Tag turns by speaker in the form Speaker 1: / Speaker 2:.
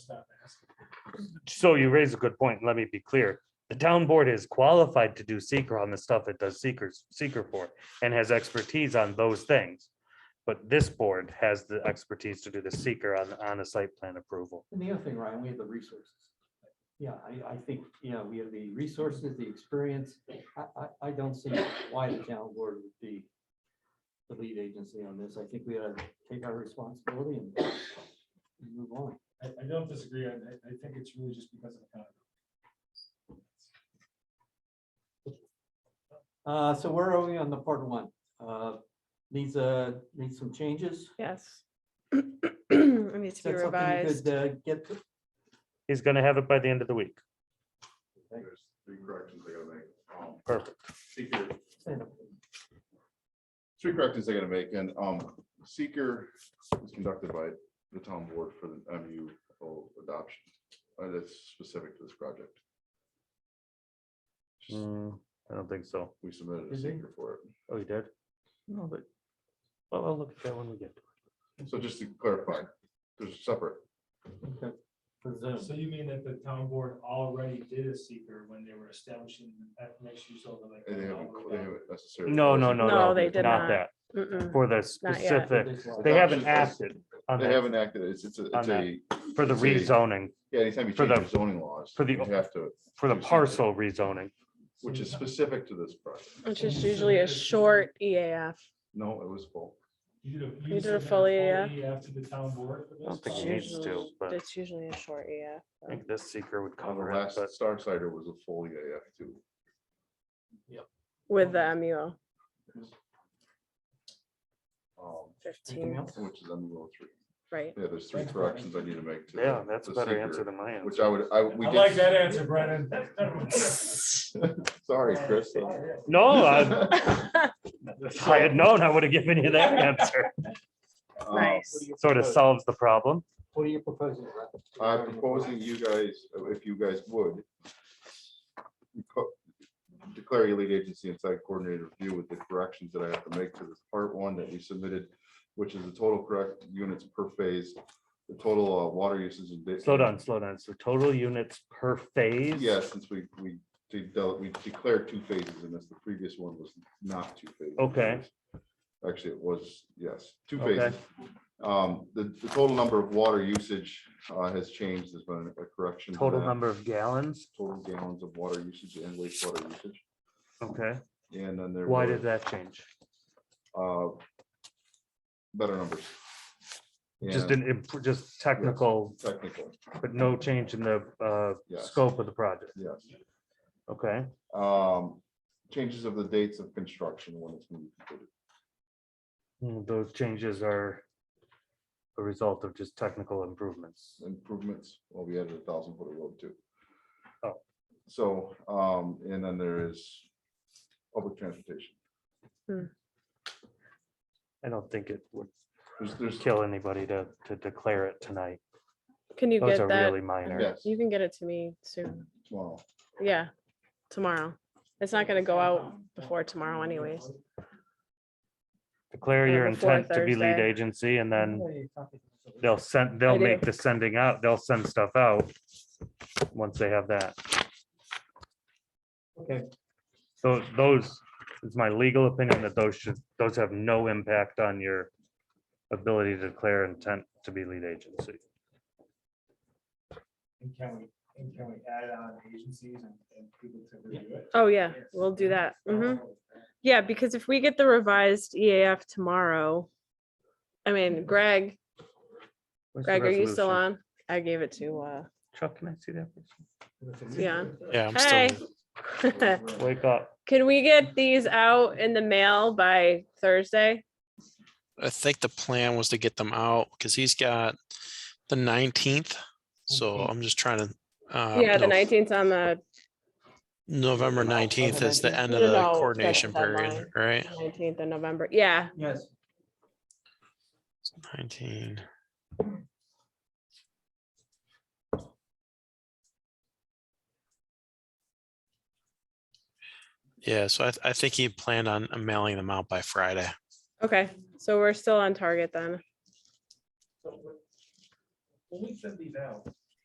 Speaker 1: So you raise a good point. Let me be clear. The town board is qualified to do seeker on the stuff it does seekers, seeker for and has expertise on those things. But this board has the expertise to do the seeker on, on a site plan approval.
Speaker 2: And the other thing, Ryan, we have the resources. Yeah, I, I think, you know, we have the resources, the experience. I, I, I don't see why the town board would be the lead agency on this. I think we ought to take our responsibility and and move on.
Speaker 3: I, I don't disagree. I, I- I think it's really just because of economy.
Speaker 2: Uh, so where are we on the part one? Uh, needs uh needs some changes?
Speaker 4: Yes. It
Speaker 2: Is
Speaker 4: needs to be
Speaker 2: that something you
Speaker 4: revised.
Speaker 2: could uh, Get, to?
Speaker 1: He's gonna have it by the end of the week.
Speaker 5: There's three corrections they gotta make. Um,
Speaker 1: Perfect.
Speaker 5: Seeker,
Speaker 2: send them.
Speaker 5: three corrections they gotta make, and, um, seeker is conducted by the town board for the MU adoption. Uh, that's specific to this project. Just-
Speaker 1: Mm, I don't think so.
Speaker 5: We submitted a
Speaker 2: Is it?
Speaker 5: seeker for it.
Speaker 1: Oh, you did? No, but, well, I'll look at that when we get. to it.
Speaker 5: So just to clarify, there's a separate,
Speaker 2: Okay. For Zoom.
Speaker 3: So you mean that the town board already did a seeker when they were establishing that mixed use over like.
Speaker 5: and they haven't, they haven't necessarily.
Speaker 1: No, no, no, no.
Speaker 4: No, they did
Speaker 1: Not
Speaker 4: not.
Speaker 1: that.
Speaker 4: Mm-mm.
Speaker 1: For the
Speaker 4: Not yet.
Speaker 1: specific,
Speaker 2: This one.
Speaker 1: they haven't
Speaker 5: Adoption.
Speaker 1: acted on
Speaker 5: They
Speaker 1: that,
Speaker 5: haven't acted, it's, it's a,
Speaker 1: On
Speaker 5: it's a,
Speaker 1: for the rezoning,
Speaker 5: yeah, anytime you
Speaker 1: For
Speaker 5: change
Speaker 1: the-
Speaker 5: your zoning laws,
Speaker 1: for the-
Speaker 5: you have to,
Speaker 1: for the
Speaker 5: Two separate.
Speaker 1: parcel rezoning.
Speaker 5: which is
Speaker 3: Mm-hmm.
Speaker 5: specific to this project.
Speaker 4: Which is usually a short E EAF.
Speaker 5: No, it was full.
Speaker 3: You did a.
Speaker 4: You did a
Speaker 3: submitted
Speaker 4: full
Speaker 3: After the town board. for
Speaker 1: I
Speaker 3: this?
Speaker 1: don't think
Speaker 4: It's
Speaker 1: it needs
Speaker 4: usually-
Speaker 1: to, but-
Speaker 4: It's usually a short EAF.
Speaker 1: I think this seeker would
Speaker 5: The
Speaker 1: cover it,
Speaker 5: last
Speaker 1: but
Speaker 5: Star Cider was a full EAF too.
Speaker 4: With the MUO
Speaker 5: um,
Speaker 2: Anything
Speaker 4: fifteen,
Speaker 2: else?
Speaker 5: Which is on the row three.
Speaker 4: right?
Speaker 5: Yeah, there's three
Speaker 2: That's
Speaker 5: corrections I need to make. to the-
Speaker 1: yeah, that's a
Speaker 5: the
Speaker 1: better
Speaker 5: seeker,
Speaker 1: answer than my
Speaker 5: Which
Speaker 1: answer.
Speaker 5: I would, I, we
Speaker 3: I like that
Speaker 5: did,
Speaker 3: answer, Brennan.
Speaker 5: sorry, Chris.
Speaker 1: No, Oh, I- if I had known, I would have given you that answer.
Speaker 5: Um,
Speaker 4: Nice.
Speaker 1: Sort of solves the problem.
Speaker 2: What are you proposing? Ryan?
Speaker 5: I'm proposing you guys, if you guys would. co- Declare your lead agency and site coordinator review with the corrections that I have to make to this part one that we submitted, which is the total correct units per phase, the total uh, water usage. and da-
Speaker 1: Slow down, slow down. So total units per phase?
Speaker 5: Yeah, since we, we, de- dealt- we declared two phases in this, the previous one was not two phases.
Speaker 1: Okay.
Speaker 5: Actually, it was, yes, two
Speaker 1: Okay.
Speaker 5: phases. Um, the, the total number of water usage, uh, has changed, there's been a correction. to
Speaker 1: Total
Speaker 5: that.
Speaker 1: number of gallons?
Speaker 5: Total gallons of water usage and wastewater usage,
Speaker 1: Okay.
Speaker 5: and then there.
Speaker 1: Why
Speaker 5: was,
Speaker 1: did that change?
Speaker 5: Uh, better numbers.
Speaker 1: Just
Speaker 5: and
Speaker 1: an, imp- just technical,
Speaker 5: Technical,
Speaker 1: but no change in the uh,
Speaker 5: Yes.
Speaker 1: scope of the project.
Speaker 5: yes.
Speaker 1: Okay,
Speaker 5: Um, changes of the dates of construction when it's. gonna be completed.
Speaker 1: Mm, those changes are a result of just technical improvements.
Speaker 5: improvements, well, we added a thousand foot of road too.
Speaker 1: Oh.
Speaker 5: So, um, and then there is public transportation.
Speaker 1: I don't think it would
Speaker 5: There's, there's,
Speaker 1: kill anybody to, to declare it tonight.
Speaker 4: Can you
Speaker 1: Those
Speaker 4: get
Speaker 1: are
Speaker 4: that?
Speaker 1: really minor.
Speaker 5: yes,
Speaker 4: You can get it to me soon.
Speaker 5: tomorrow.
Speaker 4: Yeah, tomorrow. It's not gonna go out before tomorrow anyways.
Speaker 1: Declare
Speaker 4: Uh,
Speaker 1: your
Speaker 4: before
Speaker 1: intent to be lead
Speaker 4: Thursday. Mm-hmm.
Speaker 1: agency and then they'll send, they'll
Speaker 4: I do.
Speaker 1: make the sending out, they'll send stuff out. Once they have that.
Speaker 2: Okay,
Speaker 1: So those, it's my legal opinion that those should, those have no impact on your ability to declare intent to be lead agency.
Speaker 3: And can we, and can we add on agencies and, and people to review it?
Speaker 4: Oh, yeah, we'll do that. hmm Yeah, because if we get the revised EAF tomorrow, I mean, Greg,
Speaker 1: Where's the
Speaker 4: Greg, are you still
Speaker 1: resolution?
Speaker 4: on? I gave it to, uh,
Speaker 1: Chuck, can I see that? please?
Speaker 4: yeah.
Speaker 6: Yeah, I'm
Speaker 4: Hey.
Speaker 6: still.
Speaker 1: Wake up.
Speaker 4: Can we get these out in the mail by Thursday?
Speaker 6: I think the plan was to get them out because he's got the nineteenth. So
Speaker 2: 19th.
Speaker 6: I'm just trying to. uh,
Speaker 4: Yeah, the
Speaker 6: no,
Speaker 4: nineteenth on the
Speaker 6: November
Speaker 2: No, on the
Speaker 6: nineteenth is the
Speaker 2: 19th.
Speaker 6: end
Speaker 4: No,
Speaker 6: of the
Speaker 4: no, that's
Speaker 6: coordination
Speaker 4: the
Speaker 6: period,
Speaker 4: deadline.
Speaker 6: right?
Speaker 4: nineteenth of November. Yeah,
Speaker 2: yes.
Speaker 6: Nineteen. Yeah, so I, th- I think he planned on mailing them out by Friday.
Speaker 4: okay. So we're still on target then.
Speaker 3: So, When when we send these out,